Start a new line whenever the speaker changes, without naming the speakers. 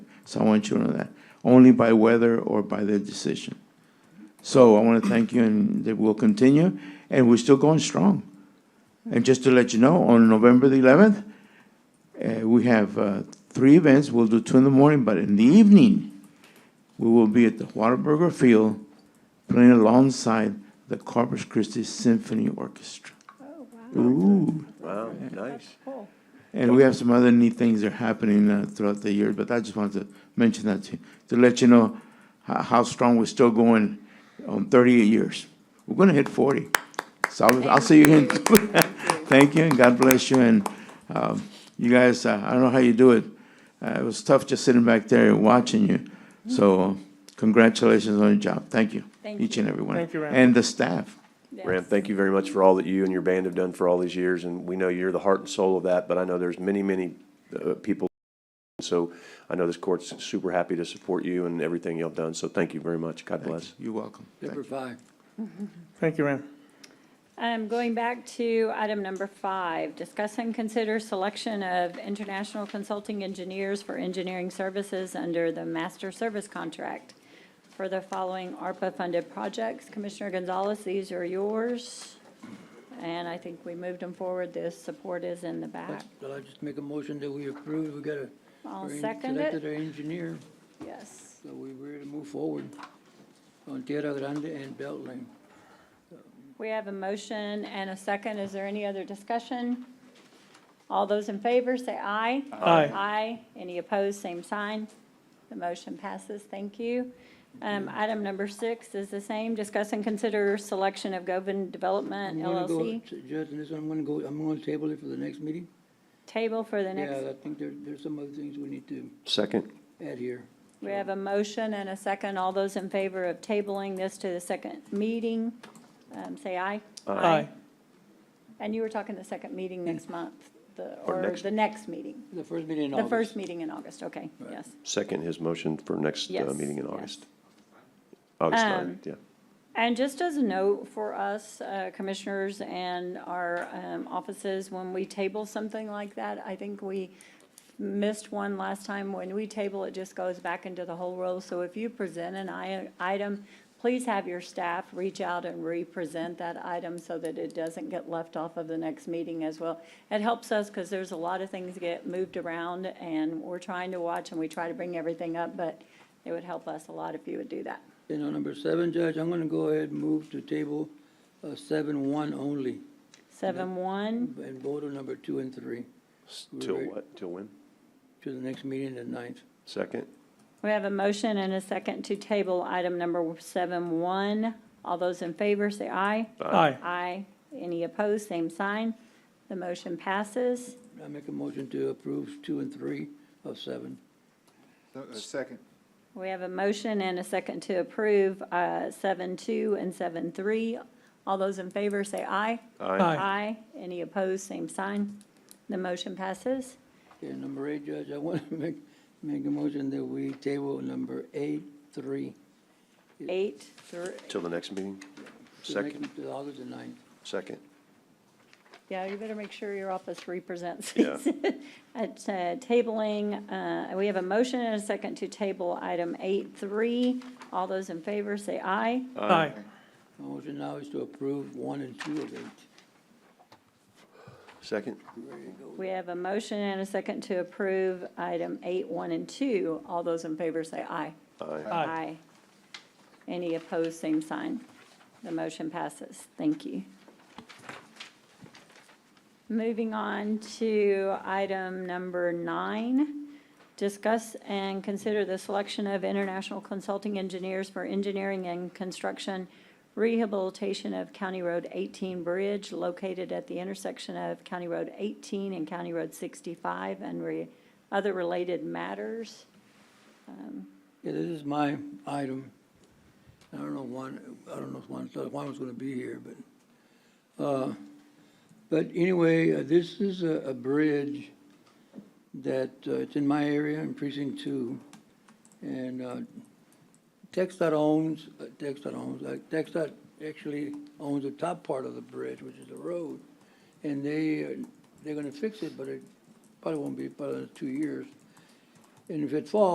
So I want you to know that, only by weather or by their decision. So I want to thank you, and that will continue, and we're still going strong. And just to let you know, on November the 11th, uh, we have uh, three events. We'll do two in the morning, but in the evening, we will be at the Whataburger Field playing alongside the Corpus Christi Symphony Orchestra.
Oh, wow.
Ooh.
Wow, nice.
Cool.
And we have some other neat things that are happening uh, throughout the year, but I just wanted to mention that to, to let you know how, how strong we're still going on 38 years. We're going to hit 40. So I'll, I'll see you again. Thank you, and God bless you. And um, you guys, uh, I don't know how you do it. Uh, it was tough just sitting back there and watching you. So congratulations on your job. Thank you,
Thank
each
you.
and every one,
Thank you, Ram.
and the staff.
Yes.
Ram, thank you very much for all that you and your band have done for all these years, and we know you're the heart and soul of that, but I know there's many, many uh, people. So I know this court's super happy to support you and everything you've done, so thank you very much. God bless.
You're welcome. Thank you.
Number five.
Thank you, Ram.
Um, going back to item number five, discuss and consider selection of international consulting engineers for engineering services under the master service contract for the following ARPA-funded projects. Commissioner Gonzalez, these are yours. And I think we moved them forward. The support is in the back.
Well, I just make a motion that we approve, we got a.
I'll
we
second
Selected
it.
our engineer,
Yes.
so we were to move forward on Tierra Grande and Beltline.
We have a motion and a second. Is there any other discussion? All those in favor, say aye.
Aye.
Aye. Any opposed, same sign. The motion passes. Thank you. Um, item number six is the same. Discuss and consider selection of Govan Development
I'm gonna go-
LLC
Judge, this one, I'm gonna go, I'm gonna table it for the next meeting.
table for the
Yeah,
next.
I think there, there's some other things we need to
Second,
add here.
We have a motion and a second. All those in favor of tabling this to the second meeting, um, say aye.
Aye.
And you were talking the second meeting next month, the,
Or
or
next-
the next meeting.
The first meeting in
The
August.
first meeting in August, okay,
Right.
yes.
second his motion for next uh,
Yes,
meeting in
yes.
August. August
Um,
9th, yeah.
And just as a note for us uh, commissioners and our um, offices, when we table something like that, I think we missed one last time. When we table, it just goes back into the whole roll. So if you present an i- item, please have your staff reach out and re-present that item so that it doesn't get left off of the next meeting as well. It helps us because there's a lot of things get moved around and we're trying to watch and we try to bring everything up, but it would help us a lot if you would do that.
And on number seven, Judge, I'm gonna go ahead and move to table, uh, seven one only,
Seven one.
and vote on number two and three,
S- Till what, till when?
to the next meeting, the ninth.
Second?
We have a motion and a second to table item number seven one. All those in favor, say aye.
Aye.
Aye. Any opposed, same sign. The motion passes.
I make a motion to approve two and three of seven.
No, uh, Second.
We have a motion and a second to approve uh, seven two and seven three. All those in favor, say aye.
Aye.
Aye. Any opposed, same sign. The motion passes.
Okay, number eight, Judge, I want to make, make a motion that we table number eight, three.
Eight, three.
Till the next meeting?
to the next-
Second,
To August the ninth.
second.
Yeah, you better make sure your office represents
Yeah.
these. At uh, tabling, uh, we have a motion and a second to table item eight three. All those in favor, say aye.
Aye.
My motion now is to approve one and two of eight.
Second?
We have a motion and a second to approve item eight one and two. All those in favor, say aye.
Aye.
Aye.
Any opposed, same sign. The motion passes. Thank you. Moving on to item number nine, discuss and consider the selection of international consulting engineers for engineering and construction rehabilitation of County Road 18 Bridge located at the intersection of County Road 18 and County Road 65 and re- other related matters.
Yeah, this is my item. I don't know Juan, I don't know if Juan, thought Juan was gonna be here, but, uh, but anyway, uh, this is a, a bridge that, uh, it's in my area, in precinct two. And, uh, Texas owns, uh, Texas owns, like, Texas actually owns the top part of the bridge, which is the road. And they, uh, they're gonna fix it, but it probably won't be, probably in two years. And if it falls.